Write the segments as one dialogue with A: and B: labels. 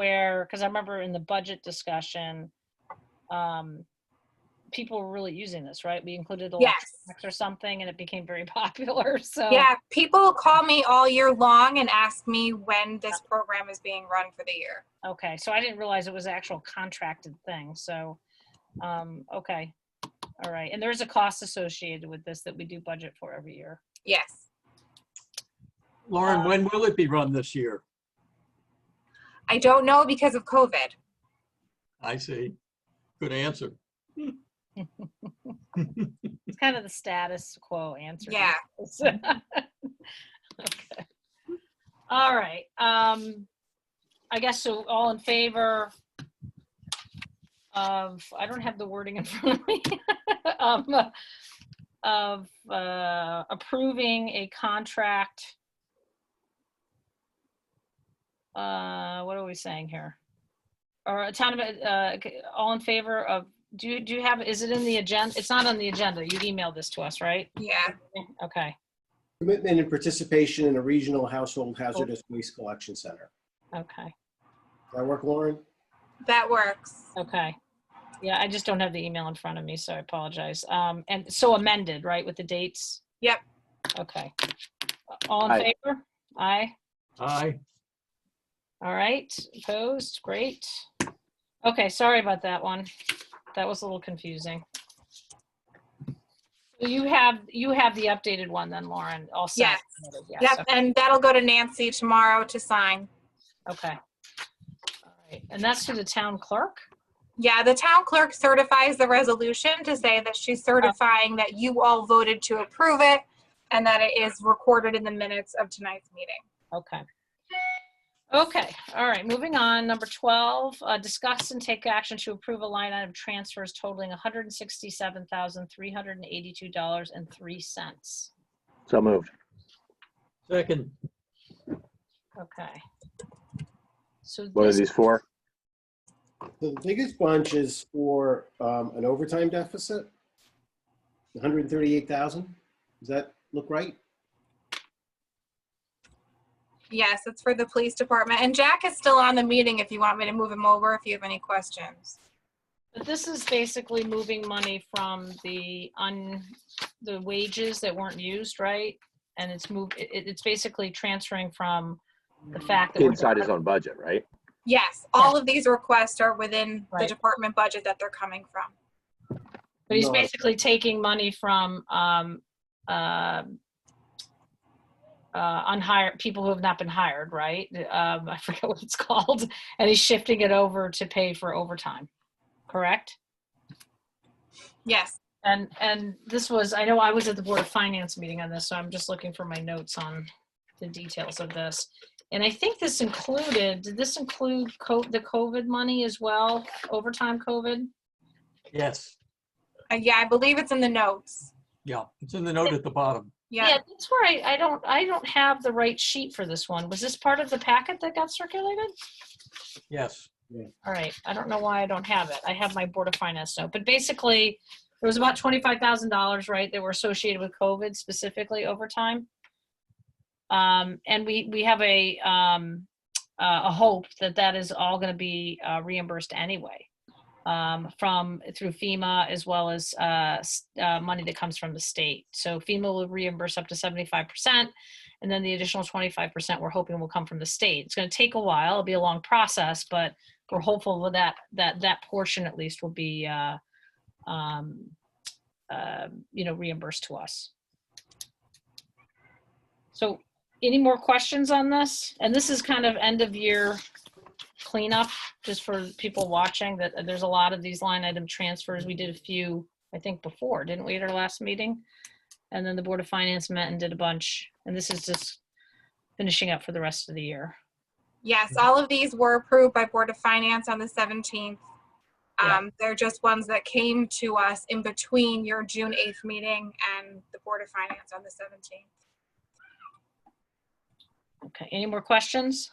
A: where, because I remember in the budget discussion, um, people were really using this, right? We included
B: Yes.
A: electronics or something and it became very popular, so.
B: Yeah, people call me all year long and ask me when this program is being run for the year.
A: Okay, so I didn't realize it was an actual contracted thing, so, um, okay. All right, and there is a cost associated with this that we do budget for every year.
B: Yes.
C: Lauren,
A: Um,
C: when will it be run this year?
B: I don't know because of COVID.
C: I see. Good answer.
A: It's kind of the status quo answer. to
B: Yeah.
A: this. Okay. All right, um, I guess so, all in favor of, I don't have the wording in front of me. Um, Of, uh, approving a contract. Uh, what are we saying here? Or a town, of- uh, c- all in favor of, do you, do you have, is it in the agenda? It's not on the agenda. You emailed this to us, right?
B: Yeah.
A: Okay,
D: Commitment and participation in a regional household hazardous waste collection center.
A: okay,
D: Does that work, Lauren?
B: That works.
A: okay. Yeah, I just don't have the email in front of me, so I apologize. Um, and so amended, right, with the dates?
B: Yep.
A: Okay. All in
E: Aye.
A: favor? Aye.
C: Aye.
A: All right, opposed, great. Okay, sorry about that one. That was a little confusing. You have, you have the updated one then, Lauren, all set? Yes.
B: Yep. And that'll go to Nancy tomorrow to sign.
A: Okay. All right, And that's through the town clerk?
B: Yeah, the town clerk certifies the resolution to say that she's certifying that you all voted to approve it and that it is recorded in the minutes of tonight's meeting.
A: Okay. Okay, all right, moving on, number 12, uh, discuss and take action to approve a line item transfers totaling $167,382.03.
E: So moved.
C: Second,
A: Okay. So
E: What are
A: this,
E: these for?
D: The biggest bunch is for um, an overtime deficit, 138,000. Does that look right?
B: Yes, it's for the police department. And Jack is still on the meeting if you want me to move him over if you have any questions.
A: but this is basically moving money from the un, the wages that weren't used, right? And it's moved, it, it's basically transferring from the fact that. we're-
E: Inside his own budget, right?
B: Yes, all of these requests are within the
A: Right.
B: department budget that they're coming from.
A: But he's
D: No.
A: basically taking money from, um, um, uh, unhired, people who have not been hired, right? Um, I forget what it's called, and he's shifting it over to pay for overtime, correct?
B: Yes,
A: And, and this was, I know I was at the Board of Finance meeting on this, so I'm just looking for my notes on the details of this. And I think this included, did this include co, the COVID money as well, overtime COVID?
C: yes.
B: Uh, yeah, I believe it's in the notes.
C: Yeah, it's in the note at the bottom.
A: Yeah,
B: Yeah,
A: that's where I, I don't, I don't have the right sheet for this one. Was this part of the packet that got circulated?
C: Yes.
A: All right, I don't know why I don't have it. I have my Board of Finance note, but basically, there was about twenty-five thousand dollars, right, that were associated with COVID specifically overtime. Um, and we, we have a, um, uh, a hope that that is all gonna be uh, reimbursed anyway. Um, from, through FEMA as well as, uh, s- uh, money that comes from the state. So FEMA will reimburse up to seventy-five percent. And then the additional twenty-five percent we're hoping will come from the state. It's gonna take a while, it'll be a long process, but we're hopeful with that that that portion at least will be uh, um, uh, you know reimbursed to us. So any more questions on this? And this is kind of end of year cleanup, just for people watching that there's a lot of these line item transfers. We did a few, I think before, didn't we at our last meeting? And then the Board of Finance met and did a bunch. And this is just finishing up for the rest of the year.
B: yes, all of these were approved by Board of Finance on the 17th.
A: Yeah.
B: Um, They're just ones that came to us in between your June 8th meeting and the Board of Finance on the 17th.
A: Okay, any more questions?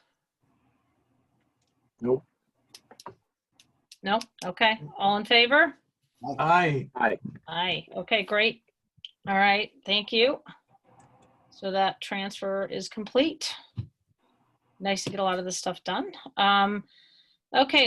E: Nope.
A: No? Okay, all in favor?
C: Aye.
A: Aye, okay, great. All right, thank you. So that transfer is complete. Nice to get a lot of this stuff done. Um, Okay,